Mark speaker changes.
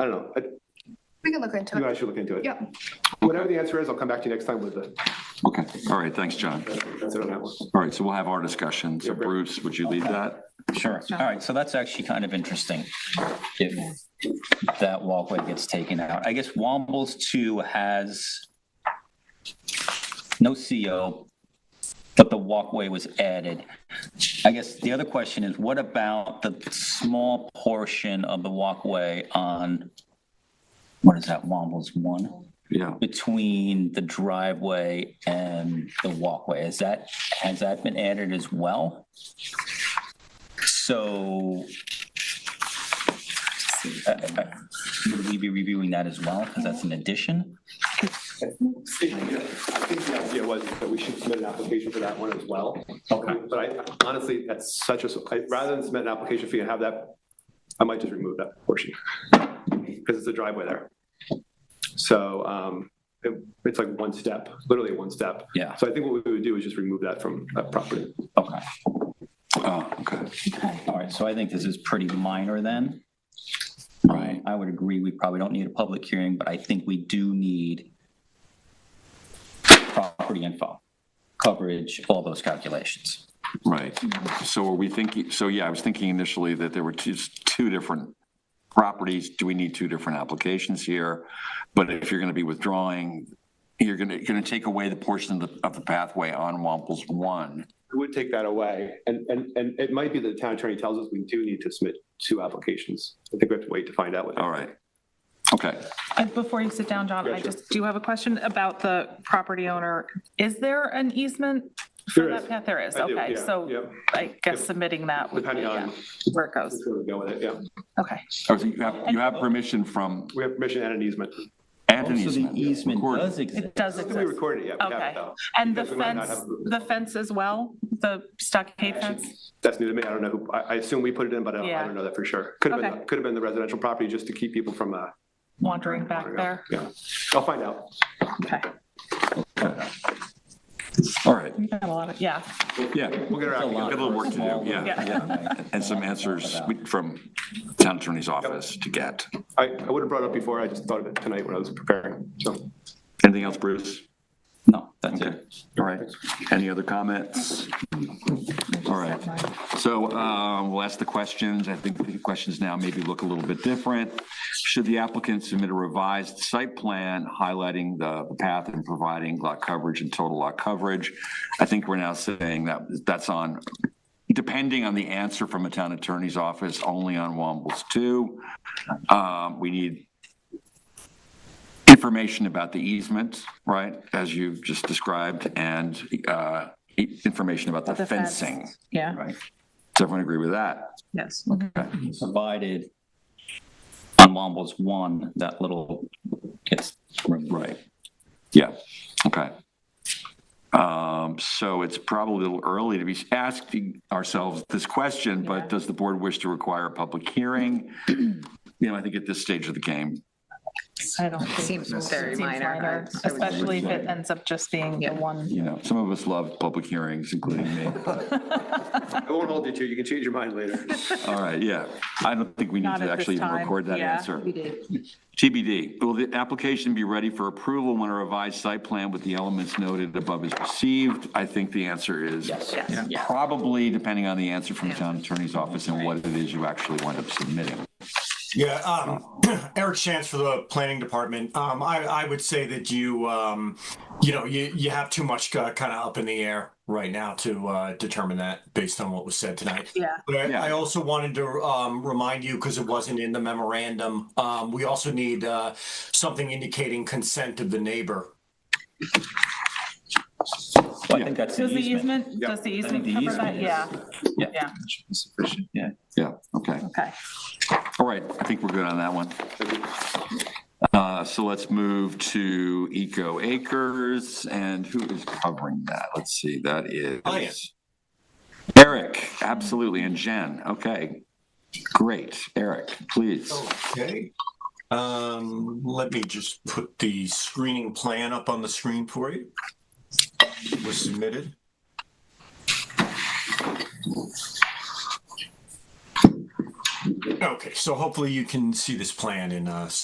Speaker 1: I don't know. I-
Speaker 2: We can look into
Speaker 1: You
Speaker 2: it.
Speaker 1: guys should look into it.
Speaker 2: Yep.
Speaker 1: Whatever the answer is, I'll come back to you next time with the,
Speaker 3: Okay, all right, thanks, John.
Speaker 1: that's it on that one.
Speaker 3: All right, so we'll have our discussion. So Bruce, would you lead that?
Speaker 4: Sure. All right, so that's actually kind of interesting. If that walkway gets taken out, I guess Wambles two has no CO, but the walkway was added. I guess the other question is, what about the small portion of the walkway on, what is that, Wambles one?
Speaker 3: Yeah,
Speaker 4: Between the driveway and the walkway, is that, has that been added as well? So uh, uh, would we be reviewing that as well, because that's an addition?
Speaker 1: I think the idea was that we should submit an application for that one as well. Okay. But I honestly, that's such a, I- rather than submit an application fee and have that, I might just remove that portion. Because it's a driveway there. So um, it- it's like one step, literally one step.
Speaker 4: Yeah.
Speaker 1: So I think what we would do is just remove that from that property.
Speaker 4: Okay,
Speaker 3: oh, okay,
Speaker 4: all right, so I think this is pretty minor then.
Speaker 3: right.
Speaker 4: I would agree, we probably don't need a public hearing, but I think we do need property info, coverage, all those calculations.
Speaker 3: Right. So are we thinking, so yeah, I was thinking initially that there were two, two different properties. Do we need two different applications here? But if you're going to be withdrawing, you're going to, you're going to take away the portion of the, of the pathway on Wamples One.
Speaker 1: We would take that away. And, and, and it might be that the town attorney tells us we do need to submit two applications. I think we have to wait to find out what.
Speaker 3: All right. Okay,
Speaker 5: And before you sit down, John, I
Speaker 1: Gotcha.
Speaker 5: just do have a question about the property owner. Is there an easement? for
Speaker 1: There
Speaker 5: that
Speaker 1: is.
Speaker 5: path? There is,
Speaker 1: I do,
Speaker 5: okay,
Speaker 1: yeah,
Speaker 5: so
Speaker 1: yeah.
Speaker 5: I guess submitting that would be
Speaker 1: Depending on
Speaker 5: yeah, where it
Speaker 1: That's
Speaker 5: goes,
Speaker 1: where we go with it, yeah.
Speaker 5: okay.
Speaker 3: Oh, so you have, you have permission from
Speaker 1: We have permission and an easement.
Speaker 3: Anthony's.
Speaker 4: Also, Oh, the easement
Speaker 3: Record.
Speaker 4: does exist.
Speaker 5: It does
Speaker 1: I don't think we
Speaker 5: exist,
Speaker 1: recorded it yet. We haven't,
Speaker 5: okay.
Speaker 1: though.
Speaker 5: And the
Speaker 1: Because we might not
Speaker 5: fence, the fence as well, the stockade fence?
Speaker 1: That's new to me. I don't know who, I, I assume we put it in, but I don't, I
Speaker 5: Yeah.
Speaker 1: don't know that for sure. Could have been,
Speaker 5: Okay.
Speaker 1: could have been the residential property just to keep people from, uh.
Speaker 5: Wandering back there,
Speaker 1: Yeah, I'll find out.
Speaker 5: okay.
Speaker 3: All right,
Speaker 5: We got a lot of, yeah,
Speaker 3: yeah,
Speaker 1: We'll get
Speaker 4: It's a
Speaker 1: around.
Speaker 4: lot
Speaker 3: got a little
Speaker 4: for a
Speaker 3: work to do,
Speaker 4: small-
Speaker 3: yeah,
Speaker 4: yeah.
Speaker 3: and some answers we- from town attorney's office to get.
Speaker 1: I, I would have brought it up before. I just thought of it tonight when I was preparing, so.
Speaker 3: Anything else, Bruce?
Speaker 4: No, that's
Speaker 3: Okay,
Speaker 4: it.
Speaker 3: all right. Any other comments? All right, so um, we'll ask the questions. I think the questions now maybe look a little bit different. Should the applicant submit a revised site plan highlighting the the path and providing lot coverage and total lot coverage? I think we're now saying that that's on, depending on the answer from a town attorney's office, only on Wambles 2. Um, We need information about the easement, right, as you've just described, and uh, e- information about the
Speaker 5: the fence.
Speaker 3: fencing.
Speaker 5: yeah,
Speaker 4: Right,
Speaker 3: Does everyone agree with that?
Speaker 5: yes.
Speaker 4: provided on Wambles one, that little gets removed.
Speaker 3: Right. Yeah, okay. Um, So it's probably a little early to be asking ourselves this question,
Speaker 5: Yeah.
Speaker 3: but does the board wish to require a public hearing? You know, I think at this stage of the game,
Speaker 5: I don't think.
Speaker 6: Seems very
Speaker 5: seems
Speaker 6: minor.
Speaker 5: minor,
Speaker 6: I- I would-
Speaker 5: Especially if it ends up just being the
Speaker 6: Yeah.
Speaker 5: one.
Speaker 3: you know, some of us love public hearings, including me.
Speaker 1: I won't hold you to, it. you can change your mind later.
Speaker 3: All right, yeah. I don't think we need
Speaker 5: Not
Speaker 3: to
Speaker 5: at this
Speaker 3: actually even
Speaker 5: time,
Speaker 3: record that
Speaker 5: yeah.
Speaker 3: answer. TBD, will the application be ready for approval when a revised site plan with the elements noted above is received? I think the answer is.
Speaker 4: Yes.
Speaker 5: Yes.
Speaker 4: Yeah.
Speaker 3: Probably, depending on the answer from the town attorney's office and what it is you actually wind up submitting.
Speaker 7: Yeah, um, Eric Chance for the planning department. Um, I, I would say that you, um, you know, you, you have too much uh, kind of up in the air right now to uh, determine that based on what was said tonight.
Speaker 5: Yeah.
Speaker 7: But
Speaker 3: Yeah.
Speaker 7: I, I also wanted to um, remind you because it wasn't in the memorandum. Um, we also need uh, something indicating consent of the neighbor.
Speaker 4: Well, I think that's an
Speaker 5: Does the
Speaker 4: easement.
Speaker 5: easement, does the
Speaker 4: I think
Speaker 5: easement
Speaker 4: the
Speaker 5: cover
Speaker 4: easement
Speaker 5: that?
Speaker 4: is.
Speaker 5: Yeah, yeah,
Speaker 4: Sufficient, yeah.
Speaker 3: Yeah, okay.
Speaker 5: okay.
Speaker 3: All right, I think we're good on that one. Uh, So let's move to Eco Acres, and who is covering that? Let's see, that
Speaker 7: I am.
Speaker 3: is Eric, absolutely, and Jen, okay. Great, Eric, please.
Speaker 7: Okay. Um, let me just put the screening plan up on the screen for you. It was submitted. Okay, so hopefully you can see this plan in uh,